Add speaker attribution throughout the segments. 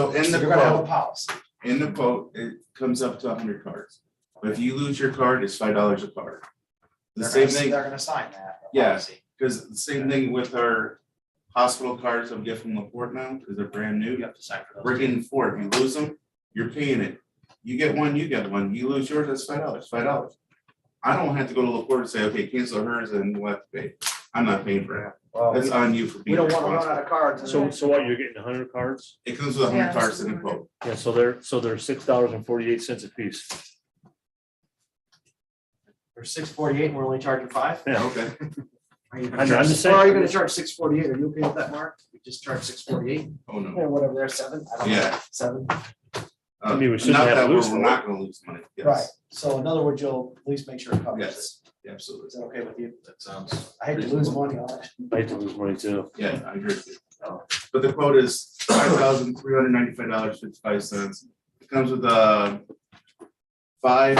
Speaker 1: So in the
Speaker 2: You're gonna have a
Speaker 1: quote,
Speaker 2: policy.
Speaker 1: in the quote, it comes up to hundred cards. But if you lose your card, it's five dollars a card. The
Speaker 2: They're
Speaker 1: same
Speaker 2: gonna-
Speaker 1: thing,
Speaker 2: They're gonna sign that. the
Speaker 1: Yeah.
Speaker 2: policy.
Speaker 1: because the same thing with our hospital cards I'm getting from Laporte now, because they're brand
Speaker 2: You
Speaker 1: new.
Speaker 2: have to sign for
Speaker 1: We're
Speaker 2: those.
Speaker 1: getting four. If you lose them, you're paying it. You get one, you get one. You lose yours, that's five dollars, five dollars. I don't have to go to Laporte and say, okay, cancel hers and we'll have to pay. I'm not paying for that.
Speaker 2: Well,
Speaker 1: That's on you for
Speaker 2: We
Speaker 1: being
Speaker 2: don't wanna run
Speaker 1: responsible.
Speaker 2: out of cards. and
Speaker 3: So,
Speaker 2: then-
Speaker 3: so what, you're getting hundred cards?
Speaker 1: It comes with
Speaker 4: Yeah,
Speaker 1: hundred
Speaker 4: that's
Speaker 1: cards in the
Speaker 4: what I
Speaker 1: quote.
Speaker 3: Yeah, so they're, so they're six dollars and forty-eight cents a piece.
Speaker 2: We're six forty-eight and we're only charging five?
Speaker 3: Yeah.
Speaker 1: Okay,
Speaker 2: Are you
Speaker 3: I
Speaker 2: gonna
Speaker 3: know, I'm
Speaker 2: charge-
Speaker 3: just
Speaker 2: Well, Are you
Speaker 3: saying.
Speaker 2: gonna charge six forty-eight? Are you okay with that, Mark? We just charge six forty-eight
Speaker 1: oh no.
Speaker 2: or whatever, they're seven, I don't know,
Speaker 1: Yeah.
Speaker 2: seven.
Speaker 3: I mean, we
Speaker 1: Uh,
Speaker 3: shouldn't
Speaker 1: not
Speaker 3: have
Speaker 1: that
Speaker 3: to lose
Speaker 1: We're
Speaker 3: money.
Speaker 1: we're not gonna lose money,
Speaker 2: Right,
Speaker 1: yes,
Speaker 2: so in other words, you'll at least make sure it covers it.
Speaker 1: Yes. absolutely.
Speaker 2: Is that okay with you?
Speaker 5: That sounds,
Speaker 2: I hate to lose money on it.
Speaker 3: I hate to lose money too.
Speaker 1: Yeah, I agree with you. But the quote is five thousand three hundred ninety-five dollars fifty-five cents. It comes with uh five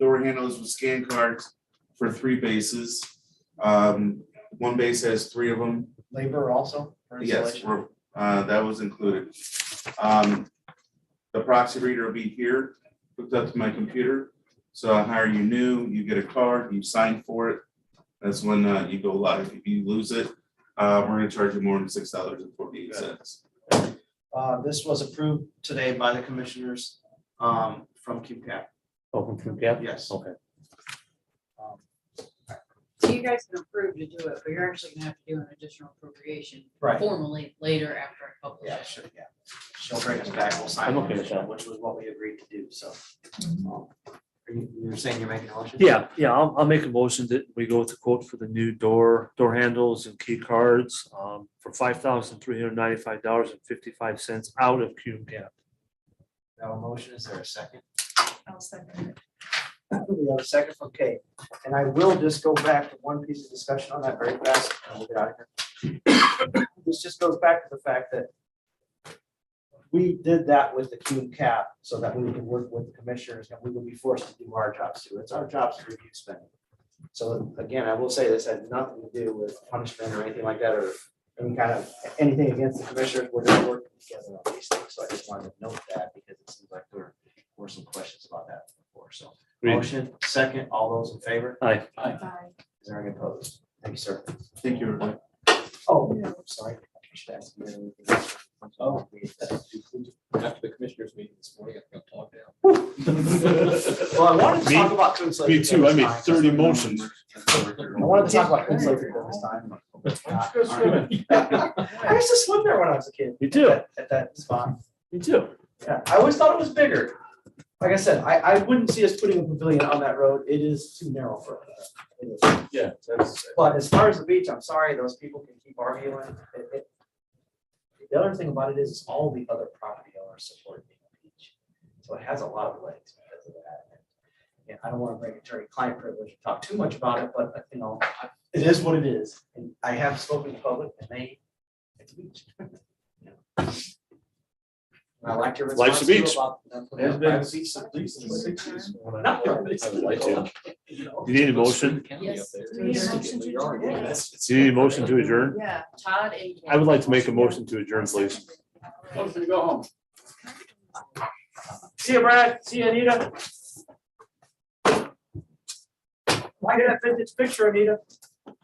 Speaker 1: door handles with scan cards for three bases. Um, one base has three of them.
Speaker 2: Labor also for
Speaker 1: Yes,
Speaker 2: installation?
Speaker 1: we're- uh, that was included. Um, the proxy reader will be here, hooked up to my computer. So I hire you new, you get a card, you sign for it. That's when, uh, you go live. If you lose it, uh, we're gonna charge you more than six dollars and forty-eight cents.
Speaker 2: Uh, this was approved today by the commissioners, um, from QCAP,
Speaker 3: Open from cap?
Speaker 2: yes.
Speaker 3: Okay.
Speaker 2: Um,
Speaker 4: So you guys can approve to do it, but you're actually gonna have to do an additional appropriation
Speaker 2: Right.
Speaker 4: formally later after I publish
Speaker 2: Yeah,
Speaker 4: it.
Speaker 2: sure, yeah. She'll bring us back, we'll sign.
Speaker 3: I'm okay
Speaker 2: it,
Speaker 3: with that.
Speaker 2: Which was what we agreed to do, so.
Speaker 4: Mhm.
Speaker 2: um, Are you, you're saying you're making a motion?
Speaker 3: Yeah, yeah, I'll, I'll make a motion that we go with the quote for the new door, door handles and key cards um, for five thousand three hundred ninety-five dollars and fifty-five cents out of Cume Gap.
Speaker 2: Now a motion, is there a second?
Speaker 4: I'll second it.
Speaker 2: We have a second from Kate, and I will just go back to one piece of discussion on that very fast, and we'll get out of here. This just goes back to the fact that we did that with the Cume cap so that we could work with the commissioners and we would be forced to do our jobs too. It's our jobs to review spending. So again, I will say this had nothing to do with punishment or anything like that or any kind of, anything against the commissioners. We're just working together on these things. So I just wanted to note that because it seems like there were some questions about that before, so.
Speaker 3: Agreed.
Speaker 2: Motion, second, all those in favor?
Speaker 3: Aye.
Speaker 2: Aye.
Speaker 4: Bye.
Speaker 2: Is there any opposed? Thank you, sir.
Speaker 1: Thank you, everybody.
Speaker 2: Oh, yeah, I'm sorry. I should ask you anything else. Oh,
Speaker 5: after the commissioners meeting this morning, I'm gonna talk now.
Speaker 2: Well, I wanted to
Speaker 3: Me-
Speaker 2: talk about Coons Lake.
Speaker 3: me too. I made
Speaker 2: this time.
Speaker 3: 30 motions.
Speaker 2: I wanted to talk about Coons Lake this time. I used to swim there when I was a kid.
Speaker 3: You do,
Speaker 2: At at that spot.
Speaker 3: you do.
Speaker 2: Yeah, I always thought it was bigger. Like I said, I, I wouldn't see us putting a pavilion on that road. It is too narrow for that. It is.
Speaker 3: Yeah.
Speaker 2: But as far as the beach, I'm sorry, those people can keep arguing. It- it- The other thing about it is, is all the other property owners support being a beach. So it has a lot of legs because of that. And, Yeah, I don't want to break attorney-client privilege and talk too much about it, but uh, you know, I- it is what it is. And I have spoken to public and they, it's a beach. You know. And I like your response
Speaker 3: Life's a
Speaker 2: too
Speaker 3: beach.
Speaker 2: about them putting
Speaker 5: Has
Speaker 2: up
Speaker 5: been
Speaker 2: private
Speaker 5: since
Speaker 2: beach
Speaker 5: at least the
Speaker 2: signs.
Speaker 5: 60s when I-
Speaker 2: No, it's-
Speaker 5: I would like to.
Speaker 2: you know.
Speaker 3: Do you need a motion?
Speaker 4: Yes.
Speaker 5: Do
Speaker 4: Do we need a motion to adjourn?
Speaker 3: Do you need a motion to adjourn?
Speaker 4: Yeah, Todd and.
Speaker 3: I would like to make a motion to adjourn, please.
Speaker 2: See you, Brad. See you, Anita. Why did I fit this picture, Anita?